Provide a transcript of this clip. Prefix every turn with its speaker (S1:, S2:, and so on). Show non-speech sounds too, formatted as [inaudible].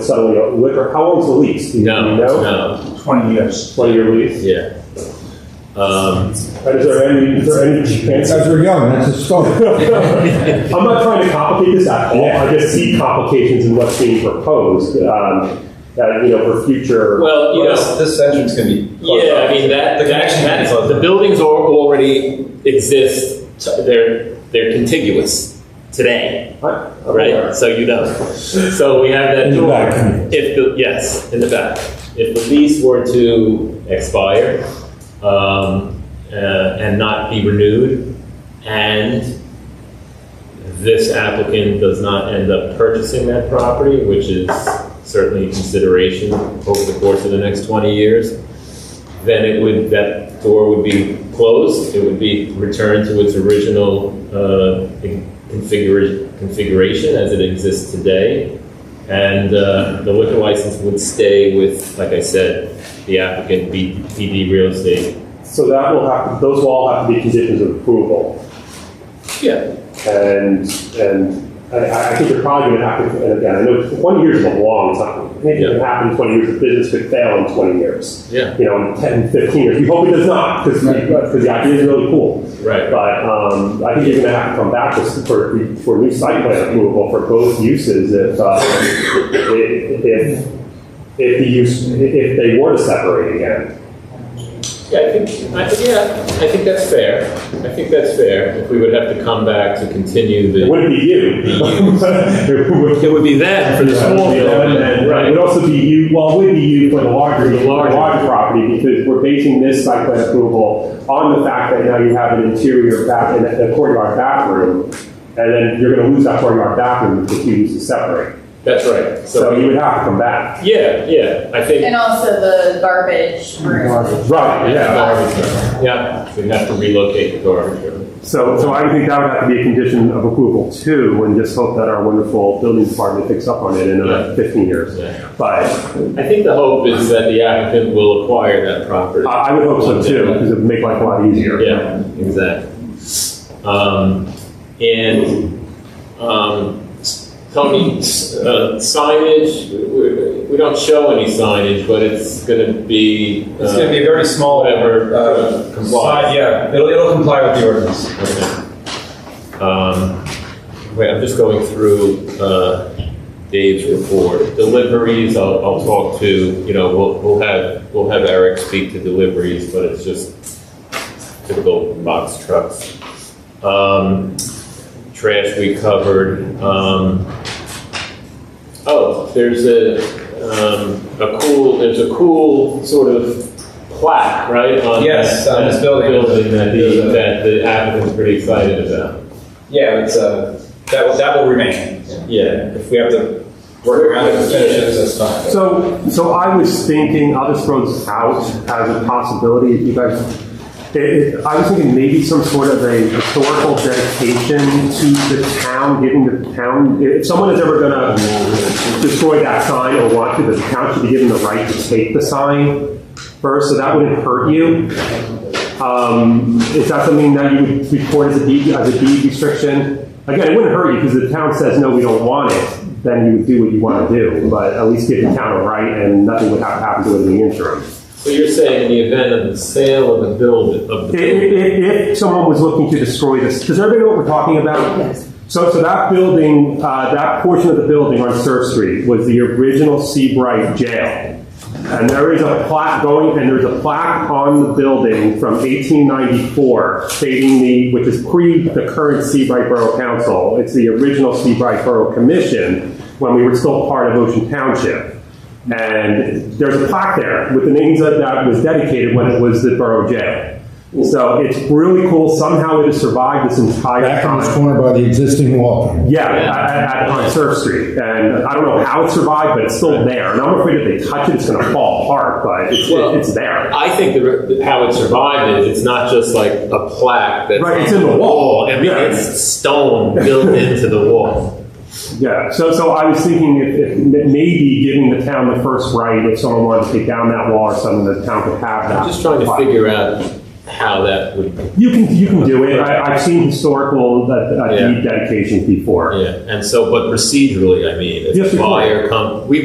S1: Suddenly, a liquor, how long's the lease? Do you
S2: No,
S1: know?
S2: no,
S3: 20 years.
S1: Twenty-year lease?
S2: yeah. Um,
S1: And is there any, is there any chance?
S4: Because we're young, that's a start.
S1: I'm not trying to complicate this at all, I just see complications in what's being proposed, um, that, you know, for future.
S2: well, you know,
S5: Yes, this entrance can be. closed
S2: yeah,
S5: off.
S2: I mean, that, the,
S5: connection can be
S2: that,
S5: closed
S2: the
S5: off.
S2: buildings are already exist, so they're, they're contiguous today, right? So you know, so we have that
S4: In the
S2: door.
S4: back.
S2: If the, yes, in the back. If the lease were to expire, um, uh, and not be renewed, and this applicant does not end up purchasing that property, which is certainly a consideration over the course of the next 20 years, then it would, that door would be closed, it would be returned to its original uh, configura- configuration as it exists today, and uh, the liquor license would stay with, like I said, the applicant, B- PD Real Estate.
S1: So that will have, those will all have to be conditions of approval,
S2: Yeah.
S1: and, and I, I think you're probably gonna have to, and again, I know twenty years is a long time. Anything can happen in twenty years, the business could fail in twenty years,
S2: Yeah,
S1: you know, in 10, 15 years, we hope it does not, because, because the idea is really cool.
S2: right.
S1: But um, I think you're going to have to come back with- for, for new site plan approval for both uses if, uh, if, if, if the use, if they were to separate again.
S2: Yeah, I think, I think, yeah, I think that's fair. I think that's fair. If we would have to come back to continue
S1: It
S2: the.
S1: wouldn't be you. [laughs] It would-
S2: It would be that for the small development,
S1: It would
S2: right?
S1: also be you, well, it would be you for the larger,
S2: The larger.
S1: larger property, because we're basing this site plan approval on the fact that now you have an interior back, and a courtyard bathroom, and then you're gonna lose that courtyard bathroom if you use to separate.
S2: That's right.
S1: So you
S2: So,
S1: would have to come back.
S2: yeah, yeah, I think,
S6: And also the garbage room.
S1: Right,
S2: yeah, we'd have to relocate the garbage room.
S1: So, so I think that would have to be a condition of approval too, and just hope that our wonderful building department picks up on it in another fifteen years.
S2: Yeah.
S1: But
S2: I think the hope is that the applicant will acquire that property.
S1: I, I would hope so too, because it would make life a lot easier.
S2: Yeah, exactly. Um, and, um, Tony, uh, signage, we, we don't show any signage, but it's gonna be. uh,
S5: It's gonna be a very small.
S2: Whatever,
S5: uh,
S2: comply.
S5: side- Yeah, it'll, it'll comply with the ordinance.
S2: okay. Um, wait, I'm just going through, uh, Dave's report. Deliveries, I'll, I'll talk to, you know, we'll, we'll have, we'll have Eric speak to deliveries, but it's just typical box trucks. Um, trash we covered. Um, oh, there's a, um, a cool, there's a cool sort of plaque, right? on
S5: Yes,
S2: that-
S5: on this
S2: that
S5: building.
S2: that the, that the applicant's pretty excited about.
S5: Yeah, it's, uh, that will, that will remain.
S2: Yeah.
S5: If we have to work around it, and finish it, that's fine.
S1: So, so I was thinking, I'll just throw this out as a possibility, if you guys, it- it- I was thinking maybe some sort of a historical dedication to the town, giving the town, if someone is ever gonna destroy that sign or want to, the town should be given the right to take the sign first, so that wouldn't hurt you. Um, Is that something that you would report as a deed, as a deed restriction? Again, it wouldn't hurt you because the town says, no, we don't want it, then you would do what you want to do, but at least give the town a right and nothing would have to happen to it in the interim.
S2: So you're saying in the event of the sale of the building, of the building?
S1: If, if someone was looking to destroy this, does everybody know what we're talking about? Yes. So, so that building, uh, that portion of the building on Surf Street was the original Seabright Jail. And there is a plaque going, and there's a plaque on the building from 1894 stating the, which is pre the current Seabright Borough Council. It's the original Seabright Borough Commission when we were still part of Ocean Township. And there's a plaque there with the names that that was dedicated when it was the borough jail. So it's really cool. Somehow it has survived this entire
S4: Back
S1: time.
S4: on this corner by the existing wall.
S1: Yeah, at, at, on Surf Street, and I don't know how it survived, but it's still there. And I'm afraid if they touch it, it's going to fall apart. But it's,
S2: Well-
S1: it's there.
S2: I think the, how it survived is it's not just like a plaque that's
S1: Right,
S2: on
S1: it's in the wall.
S2: I mean,
S1: Yeah.
S2: it's stone built into the wall.
S1: Yeah. So, so I was thinking if, if maybe giving the town the first right if someone wanted to take down that wall or something, the town could have that.
S2: I'm just trying to figure out how that would.
S1: You can you can do it. I, I've seen historical uh, uh,
S2: Yeah.
S1: deed dedications before.
S2: Yeah, and so, but procedurally, I mean,
S1: Yes,
S2: if
S1: of
S2: a
S1: course.
S2: buyer come, we